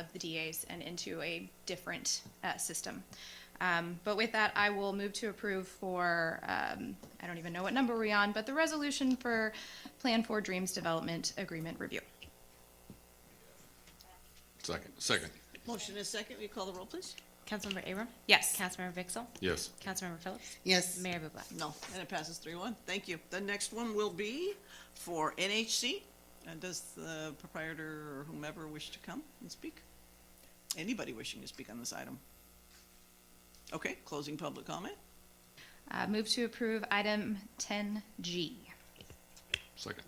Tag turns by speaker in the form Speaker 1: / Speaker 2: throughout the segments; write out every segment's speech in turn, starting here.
Speaker 1: of the DAs and into a different uh, system. Um, But with that, I will move to approve for, um, I don't even know what number we're on, but the resolution for Plan for Dreams Development Agreement Review.
Speaker 2: Second, second,
Speaker 3: Motion is second. Will you call the roll, please?
Speaker 4: Councilmember Abram?
Speaker 1: Yes.
Speaker 4: Councilmember Vixel?
Speaker 2: yes.
Speaker 4: Councilmember Phillips?
Speaker 5: Yes.
Speaker 4: Mayor Bublak?
Speaker 3: No. And it passes three one. Thank you. The next one will be for NHC. And does the proprietor or whomever wish to come and speak? Anybody wishing to speak on this item? Okay, closing public comment.
Speaker 1: Uh, Move to approve item 10G.
Speaker 2: Second,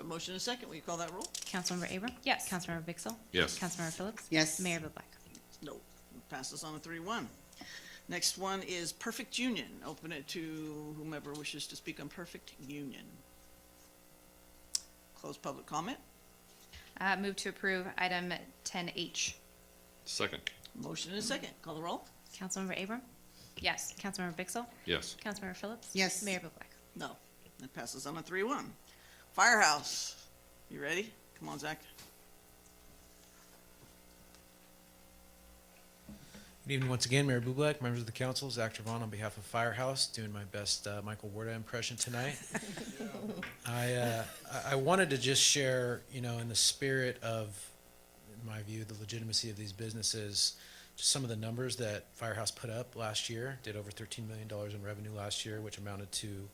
Speaker 3: A motion is second. Will you call that roll?
Speaker 4: Councilmember Abram?
Speaker 1: Yes.
Speaker 4: Councilmember Vixel?
Speaker 2: Yes.
Speaker 4: Councilmember Phillips?
Speaker 5: Yes.
Speaker 4: Mayor Bublak?
Speaker 3: No. It Passes on a three one. Next one is Perfect Union. Open it to whomever wishes to speak on Perfect Union. Close public comment.
Speaker 1: Uh, Move to approve item 10H.
Speaker 2: second,
Speaker 3: Motion is second. Call the roll.
Speaker 4: Councilmember Abram?
Speaker 1: Yes.
Speaker 4: Councilmember Vixel?
Speaker 2: yes.
Speaker 4: Councilmember Phillips?
Speaker 5: Yes.
Speaker 4: Mayor Bublak?
Speaker 3: No, that passes on a three one. Firehouse, you ready? Come on, Zach.
Speaker 6: Good evening once again, Mayor Bublak, members of the council, Zach Travon on behalf of Firehouse, doing my best uh, Michael Warda impression tonight. I, uh, I- I wanted to just share, you know, in the spirit of, in my view, the legitimacy of these businesses, just some of the numbers that Firehouse put up last year, did over $13 million in revenue last year, which amounted to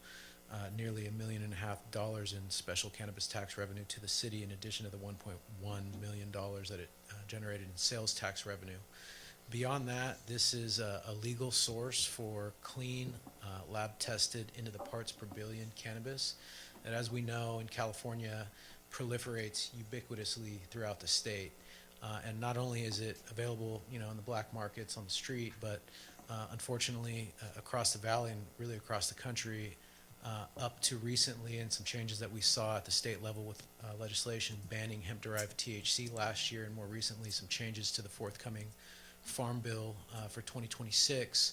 Speaker 6: uh, nearly a million and a half dollars in special cannabis tax revenue to the city, in addition to the $1.1 million that it uh, generated in sales tax revenue. Beyond that, this is a, a legal source for clean, uh, lab-tested, into the parts per billion cannabis that, as we know, in California proliferates ubiquitously throughout the state. Uh, and not only is it available, you know, in the black markets on the street, but uh, unfortunately, uh, across the valley and really across the country, uh, up to recently and some changes that we saw at the state level with uh, legislation banning hemp-derived THC last year and more recently some changes to the forthcoming Farm Bill uh, for 2026,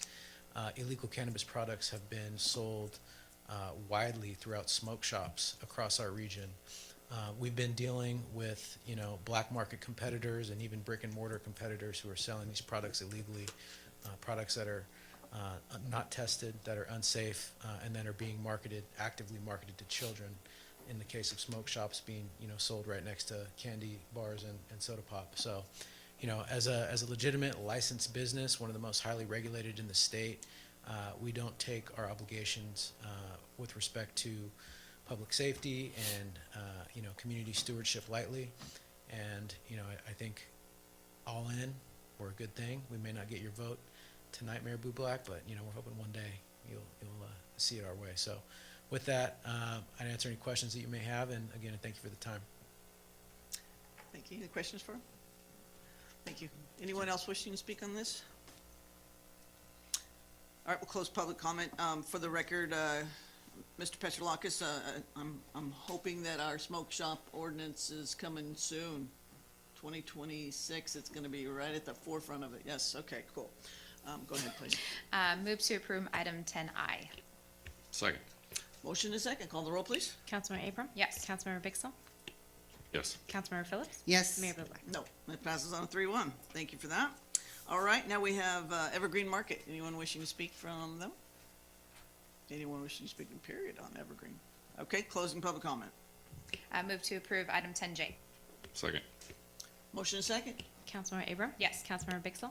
Speaker 6: uh, illegal cannabis products have been sold uh, widely throughout smoke shops across our region. Uh, We've been dealing with, you know, black market competitors and even brick and mortar competitors who are selling these products illegally, uh, products that are uh, not tested, that are unsafe, uh, and then are being marketed, actively marketed to children. In the case of smoke shops being, you know, sold right next to candy bars and, and soda pop. So, you know, as a, as a legitimate licensed business, one of the most highly regulated in the state, uh, we don't take our obligations uh, with respect to public safety and, uh, you know, community stewardship lightly. And, you know, I, I think all in, we're a good thing. We may not get your vote tonight, Mayor Bublak, but, you know, we're hoping one day you'll, you'll uh, see it our way. So with that, uh, I'd answer any questions that you may have, and again, thank you for the time.
Speaker 3: Thank you. Any questions for him? Thank you. Anyone else wishing to speak on this? All right, we'll close public comment. Um, for the record, uh, Mr. Petrolakis, uh, I'm, I'm hoping that our smoke shop ordinance is coming soon. Twenty twenty-six, it's gonna be right at the forefront of it. Yes, okay, cool. Um, go ahead, please.
Speaker 1: Uh, Move to approve item 10I.
Speaker 2: Second,
Speaker 3: Motion is second. Call the roll, please.
Speaker 4: Councilmember Abram?
Speaker 1: Yes.
Speaker 4: Councilmember Vixel?
Speaker 2: yes.
Speaker 4: Councilmember Phillips?
Speaker 5: Yes.
Speaker 4: Mayor Bublak?
Speaker 3: No, it passes on a three one. Thank you for that. All right, now we have uh, Evergreen Market. Anyone wishing to speak from them? Anyone wishing to speak in period on Evergreen? Okay, closing public comment.
Speaker 1: Uh, Move to approve item 10J.
Speaker 2: Second,
Speaker 3: Motion and second?
Speaker 4: Councilmember Abram?
Speaker 1: Yes.
Speaker 4: Councilmember Vixel?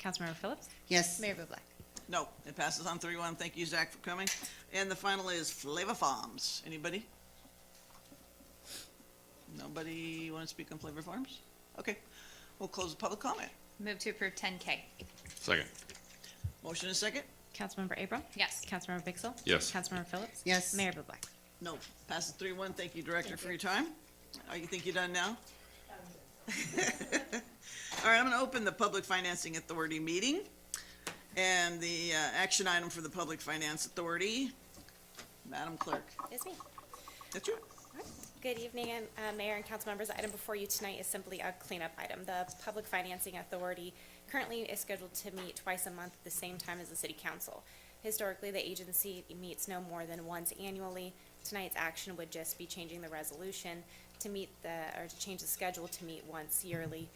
Speaker 4: Councilmember Phillips?
Speaker 5: Yes.
Speaker 4: Mayor Bublak?
Speaker 3: No, it passes on three one. Thank you, Zach, for coming. And the final is Flavor Farms. Anybody? Nobody want to speak on Flavor Farms? Okay, we'll close the public comment.
Speaker 1: Move to approve 10K.
Speaker 2: second,
Speaker 3: Motion and second?
Speaker 4: Councilmember Abram?
Speaker 1: Yes.
Speaker 4: Councilmember Vixel?
Speaker 2: Yes.
Speaker 4: Councilmember Phillips?
Speaker 5: Yes.
Speaker 4: Mayor Bublak?
Speaker 3: No, passes three one. Thank you, Director, for your time. Are you, think you're done now? All right, I'm gonna open the Public Financing Authority meeting. And the, uh, action item for the Public Finance Authority, Madam Clerk.
Speaker 7: It's me.
Speaker 3: That's you.
Speaker 7: Good evening, and, uh, Mayor and council members. The item before you tonight is simply a cleanup item. The Public Financing Authority currently is scheduled to meet twice a month at the same time as the city council. Historically, the agency meets no more than once annually. Tonight's action would just be changing the resolution to meet the, or to change the schedule to meet once yearly